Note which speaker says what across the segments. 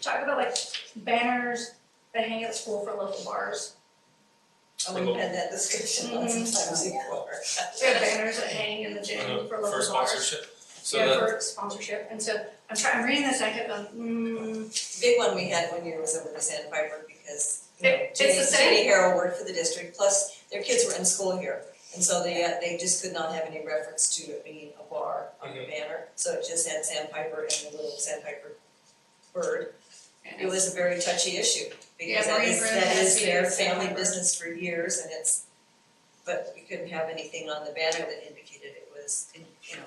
Speaker 1: talk about like banners that hang at school for local bars.
Speaker 2: Oh, we've had that discussion lots
Speaker 1: Mm-hmm.
Speaker 2: of times
Speaker 3: Mhm.
Speaker 2: before.
Speaker 1: We have banners that hang in the gym for local bars.
Speaker 4: Uh, for sponsorship. So
Speaker 1: Yeah,
Speaker 4: that,
Speaker 1: for sponsorship, and so I'm trying, I'm reading this, and I kept going, mm,
Speaker 2: Big one we had one year was over to Sandpiper because, you know,
Speaker 1: It- it's the
Speaker 2: Jenny,
Speaker 1: same.
Speaker 2: Jenny Harrell worked for the district, plus their kids were in school here. And so they, uh, they just could not have any reference to it being a bar on the banner, so it just had Sandpiper and the little Sandpiper bird. It was a very touchy issue because
Speaker 1: Yeah,
Speaker 2: that is,
Speaker 1: Marine Room
Speaker 2: that
Speaker 1: has
Speaker 2: is
Speaker 1: been
Speaker 2: their
Speaker 1: in
Speaker 2: family
Speaker 1: Sandpiper.
Speaker 2: business for years and it's, but we couldn't have anything on the banner that indicated it was, you know,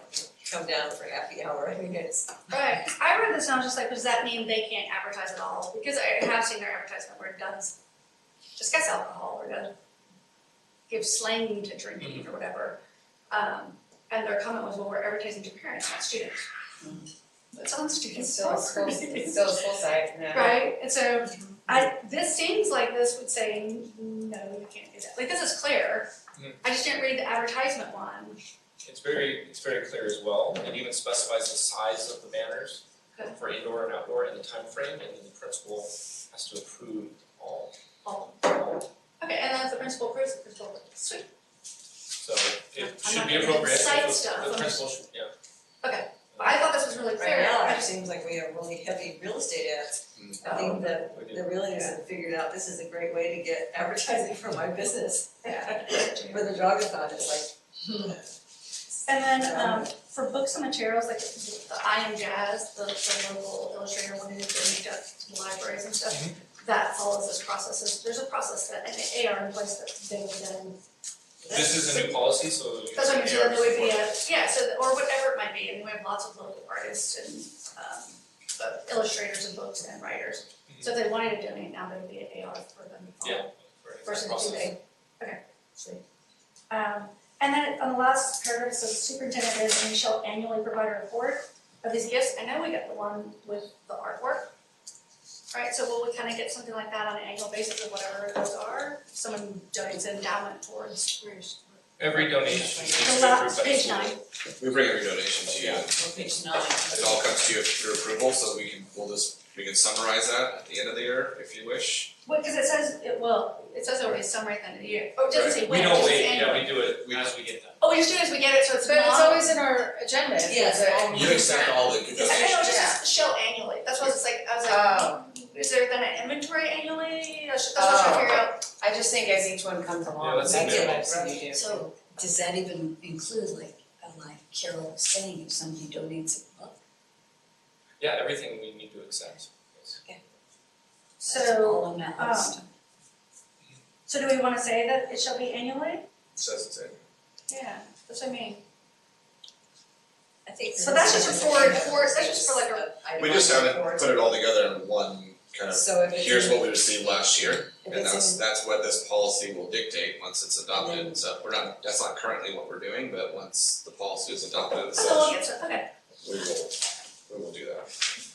Speaker 2: come down for happy hour, I mean, it's
Speaker 1: Right, I read this and I was just like, does that mean they can't advertise at all? Because I have seen their advertisement where it does discuss alcohol or does give slang to drinking
Speaker 4: Mm-hmm.
Speaker 1: or whatever. Um, and their comment was, well, we're advertising to parents, not students.
Speaker 2: Mm-hmm.
Speaker 1: It's on
Speaker 3: It's
Speaker 1: students'
Speaker 3: still a school, it's still a school site, no.
Speaker 1: Right, and so I, this seems like this would say, no, you can't do that, like this is clear.
Speaker 4: Mhm.
Speaker 1: I just didn't read the advertisement one,
Speaker 4: it's very, it's very clear as well, it even specifies the size of the banners
Speaker 1: Okay.
Speaker 4: for indoor and outdoor and the time frame, and then the principal has to approve all,
Speaker 1: oh,
Speaker 4: all.
Speaker 1: okay, and then if the principal approves, the principal, approves. sweet,
Speaker 4: So
Speaker 1: I'm
Speaker 4: it
Speaker 1: not
Speaker 4: should be
Speaker 1: gonna
Speaker 4: appropriate,
Speaker 1: cite
Speaker 4: the-
Speaker 1: stuff,
Speaker 4: the
Speaker 1: I'm
Speaker 4: principal should, yeah.
Speaker 1: But I thought this was really
Speaker 2: Right
Speaker 1: clear,
Speaker 2: now,
Speaker 1: I
Speaker 2: it
Speaker 1: just-
Speaker 2: seems like we have really heavy real estate ads.
Speaker 4: Mm.
Speaker 2: I think the,
Speaker 4: We do.
Speaker 2: the realtors have figured out this is a great way to get advertising for my business.
Speaker 1: Yeah.
Speaker 2: For the jogathon, it's hmm.
Speaker 1: And then, um, for books and materials, like the I Am Jazz, the, the local illustrator one who's doing it to the libraries and stuff, that follows this process, There's- there's a process that, an AR in place that they would then,
Speaker 2: like.
Speaker 4: This is a new policy, so. you
Speaker 1: that's what I'm
Speaker 4: can
Speaker 1: saying, there would be
Speaker 4: support.
Speaker 1: a, yeah, so, that- or whatever it might be, and we have lots of local artists and, um, uh, illustrators and books and writers. So if they wanted to donate, now there would be an AR for them to follow.
Speaker 4: Mm-hmm. Yeah. for that
Speaker 1: versus
Speaker 4: process.
Speaker 1: two day. Okay. Um, and then on the last paragraph, so superintendent is and shall annually provide a report of these gifts. I know we got the one with the artwork. Right, so will we kind of get something like that on an annual basis of whatever those are? If Someone donates endowment towards
Speaker 4: Every donation needs to
Speaker 1: the
Speaker 4: be approved
Speaker 1: last,
Speaker 4: by the
Speaker 1: page
Speaker 4: school.
Speaker 1: nine.
Speaker 5: We bring every donation to you, it
Speaker 2: Well, page nine.
Speaker 5: all comes to you for your approval, so we can, we'll just, we can summarize that at the end of the year if you wish.
Speaker 1: Well, because it says, it will, it says over a summary at the end of the year. Oh, it doesn't say when,
Speaker 4: We
Speaker 1: it
Speaker 4: don't
Speaker 1: just says
Speaker 4: wait, yeah,
Speaker 1: annually.
Speaker 4: we do it as we get them.
Speaker 1: Oh, we just do it as we get it, so it's
Speaker 3: But it's
Speaker 1: not.
Speaker 3: always in our agenda, if it's
Speaker 2: Yes.
Speaker 3: a-
Speaker 5: You accept all the good
Speaker 1: I
Speaker 5: donations.
Speaker 1: know, it just says shall annually. That's why it's like, I was like,
Speaker 3: Oh,
Speaker 1: Is there then an inventory annually? I should, that's what I should figure out.
Speaker 3: I just think as each one comes along,
Speaker 4: that's
Speaker 3: that's
Speaker 4: a
Speaker 3: what
Speaker 4: minimum.
Speaker 3: I've seen you do.
Speaker 6: So does that even include like, uh, like Carol was saying, if somebody donates a book,
Speaker 4: Yeah, everything we need to accept. yes.
Speaker 6: that's
Speaker 1: So,
Speaker 6: all on that
Speaker 1: um,
Speaker 6: list?
Speaker 1: so do we wanna say that it shall be annually?
Speaker 5: Says it's in.
Speaker 1: Yeah, that's what I mean.
Speaker 2: I think.
Speaker 1: So that's just for, for, that's just for like a,
Speaker 2: I
Speaker 5: We just
Speaker 2: want
Speaker 5: haven't
Speaker 2: reports.
Speaker 5: put it all together in one kind of,
Speaker 2: So if it's.
Speaker 5: here's
Speaker 2: in-
Speaker 5: what we received last year,
Speaker 2: if
Speaker 5: and
Speaker 2: it's
Speaker 5: that's,
Speaker 2: in-
Speaker 5: that's what this policy will dictate once it's
Speaker 2: Then-
Speaker 5: adopted, so we're not, that's not currently what we're doing, but once the policy is adopted, it
Speaker 1: that's all
Speaker 5: says
Speaker 1: it gets, okay.
Speaker 5: we will, we will do that.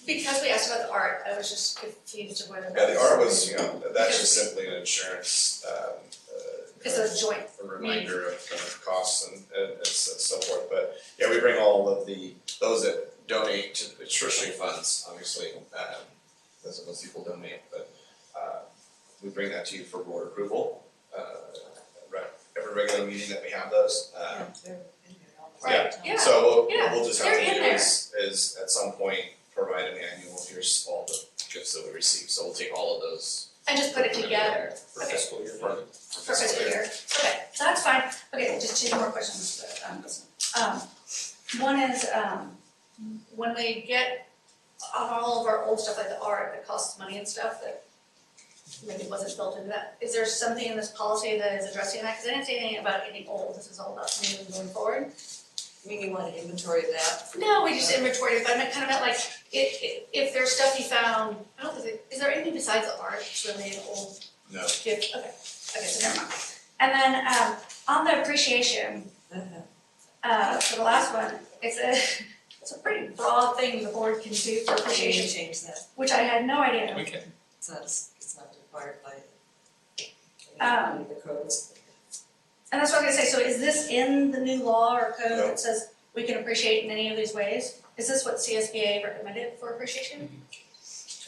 Speaker 1: Because we asked about the art, I was just confused of whether.
Speaker 5: Yeah, the R was, you know, that's just simply an insurance, um, uh.
Speaker 1: It's a joint,
Speaker 5: a reminder of kind of costs and and and so so forth, but yeah, we bring all of the, those that donate to the treasury funds, obviously, um that's what most people donate, but uh we bring that to you for board approval. Uh right, every regular meeting that we have those, uh
Speaker 2: Yeah, they're in there all the
Speaker 1: right,
Speaker 2: time.
Speaker 1: yeah.
Speaker 5: so we'll
Speaker 1: yeah,
Speaker 5: we'll just have
Speaker 1: they're
Speaker 5: to
Speaker 1: in
Speaker 5: do is is at some point provide an annual, here's all the gifts that we receive, so we'll take all of those.
Speaker 1: And just put it together
Speaker 4: For
Speaker 1: Okay.
Speaker 4: fiscal year.
Speaker 5: For-
Speaker 1: for fiscal year. Okay, so that's fine. Okay, just two more questions, but, um, this one. Um, One is, um, when we get of all of our old stuff, like the art that costs money and stuff that maybe wasn't built into that, is there something in this policy that is addressing that? Cause I didn't see anything about any old, this is all about new and going forward.
Speaker 2: I mean, you want an inventory of that,
Speaker 1: No, we just inventory, but I meant kind of meant like, if, if- if there's stuff you found, I don't think, is there anything besides the art that's really an old
Speaker 5: No,
Speaker 1: gift? Okay, okay, so never mind. And then, um, on the appreciation,
Speaker 2: uh-huh,
Speaker 1: uh, for the last one, it's a, it's a pretty broad thing the board can do for
Speaker 2: we can
Speaker 1: appreciation,
Speaker 2: change that,
Speaker 1: which I had no idea.
Speaker 4: We can,
Speaker 2: it's not, it's not required by
Speaker 1: Um,
Speaker 2: the codes.
Speaker 1: And that's what I was gonna say, so is this in the new law or code that says we can appreciate in any of these ways? Is this what CSBA recommended for appreciation?